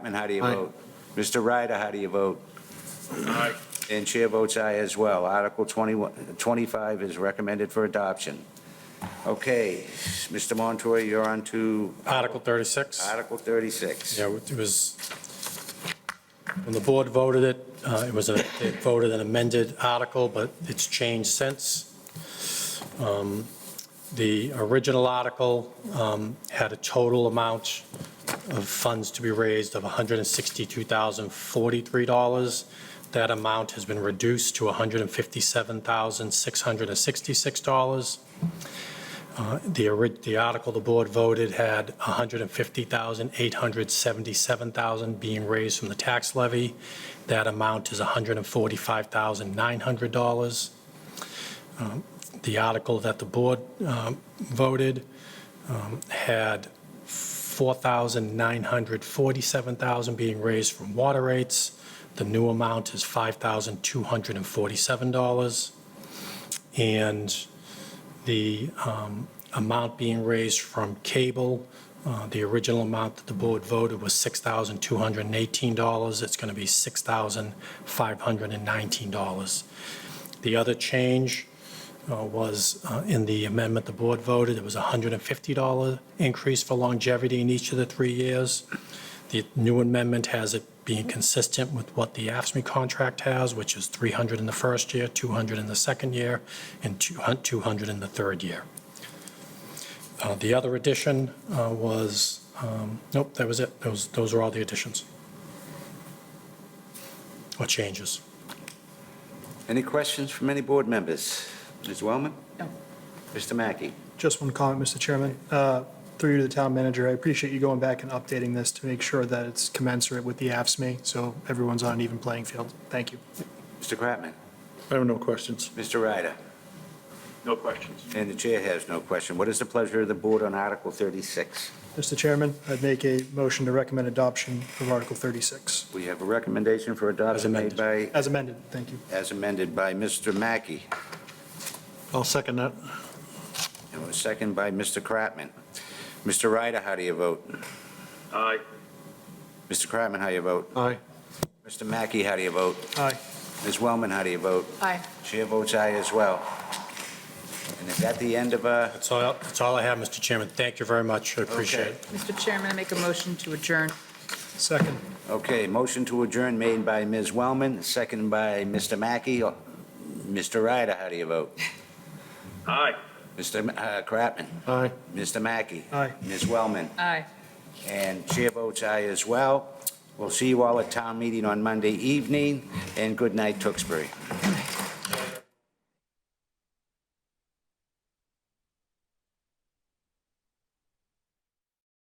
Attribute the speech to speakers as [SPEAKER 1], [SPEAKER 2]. [SPEAKER 1] And how do you
[SPEAKER 2] Aye.
[SPEAKER 1] vote? Mr. Ryder, how do you vote?
[SPEAKER 3] Aye.
[SPEAKER 1] And chair votes aye as well. Article 21 25 is recommended for adoption. Okay, Mr. Montour, you're on to
[SPEAKER 3] Article 36.
[SPEAKER 1] Article 36.
[SPEAKER 3] Yeah, it was, when the board voted it, uh, it was, a they voted an amended article, but it's changed since. Um, The original article um, had a total amount of funds to be raised of $162,043. That amount has been reduced to $157,666. Uh, The, ori- the article the board voted had 150,000, 877,000 being raised from the tax levy. That amount is $145,900. Um, The article that the board um, voted um, had 4,947,000 being raised from water rates. The new amount is $5,247. And the um, amount being raised from cable, uh, the original amount that the board voted was $6,218. It's going to be $6,519. The other change uh, was uh, in the amendment the board voted, it was $150 increase for longevity in each of the three years. The new amendment has it being consistent with what the AFSMI contract has, which is 300 in the first year, 200 in the second year, and 200 in the third year. Uh, The other addition uh, was, um, nope, that was it. Those, those are all the additions. Or changes.
[SPEAKER 1] Any questions from any board members? Ms. Wellman?
[SPEAKER 4] No.
[SPEAKER 1] Mr. Mackey?
[SPEAKER 5] Just one comment, Mr. Chairman. Uh, Through you to the town manager, I appreciate you going back and updating this to make sure that it's commensurate with the AFSMI, so everyone's on an even playing field. Thank you.
[SPEAKER 1] Mr. Kratman?
[SPEAKER 2] I have no questions.
[SPEAKER 1] Mr. Ryder?
[SPEAKER 6] No questions.
[SPEAKER 1] And the chair has no question. What is the pleasure of the board on Article 36?
[SPEAKER 5] Mr. Chairman, I'd make a motion to recommend adoption of Article 36.
[SPEAKER 1] We have a recommendation for adoption made
[SPEAKER 3] As
[SPEAKER 1] by,
[SPEAKER 5] As amended, thank you.
[SPEAKER 1] as amended by Mr. Mackey.
[SPEAKER 2] I'll second that.
[SPEAKER 1] And a second by Mr. Kratman. Mr. Ryder, how do you vote?
[SPEAKER 6] Aye.
[SPEAKER 1] Mr. Kratman, how do you vote?
[SPEAKER 2] Aye.
[SPEAKER 1] Mr. Mackey, how do you vote?
[SPEAKER 5] Aye.
[SPEAKER 1] Ms. Wellman, how do you vote?
[SPEAKER 4] Aye.
[SPEAKER 1] Chair votes aye as well. And is that the end of, uh,
[SPEAKER 3] That's all, that's all I have, Mr. Chairman. Thank you very much. I appreciate
[SPEAKER 1] Okay.
[SPEAKER 3] it.
[SPEAKER 4] Mr. Chairman, I make a motion to adjourn.
[SPEAKER 5] Second.
[SPEAKER 1] okay, motion to adjourn made by Ms. Wellman, second by Mr. Mackey. Oh, Mr. Ryder, how do you vote?
[SPEAKER 6] Aye.
[SPEAKER 1] Mr. Ma- uh, Kratman?
[SPEAKER 2] Aye.
[SPEAKER 1] Mr. Mackey?
[SPEAKER 5] Aye.
[SPEAKER 1] Ms. Wellman?
[SPEAKER 4] Aye.
[SPEAKER 1] And chair votes aye as well. We'll see you all at town meeting on Monday evening, and good night, Tewksbury.